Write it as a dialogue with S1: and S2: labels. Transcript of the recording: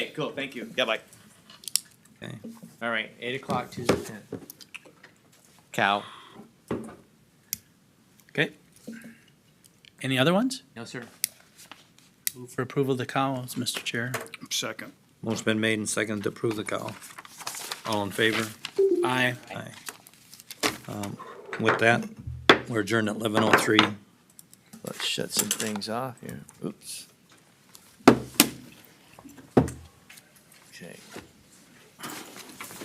S1: Okay, cool, thank you. Yeah, bye.
S2: Okay.
S3: All right, eight o'clock, Tuesday tenth.
S2: Cow. Okay.
S4: Any other ones?
S3: No, sir.
S4: Move for approval of the cows, Mr. Chair.
S5: Second.
S2: Motion's been made and seconded to approve the cow. All in favor?
S4: Aye.
S2: Aye. Um, With that, we're adjourned at eleven oh three.
S6: Let's shut some things off here. Oops.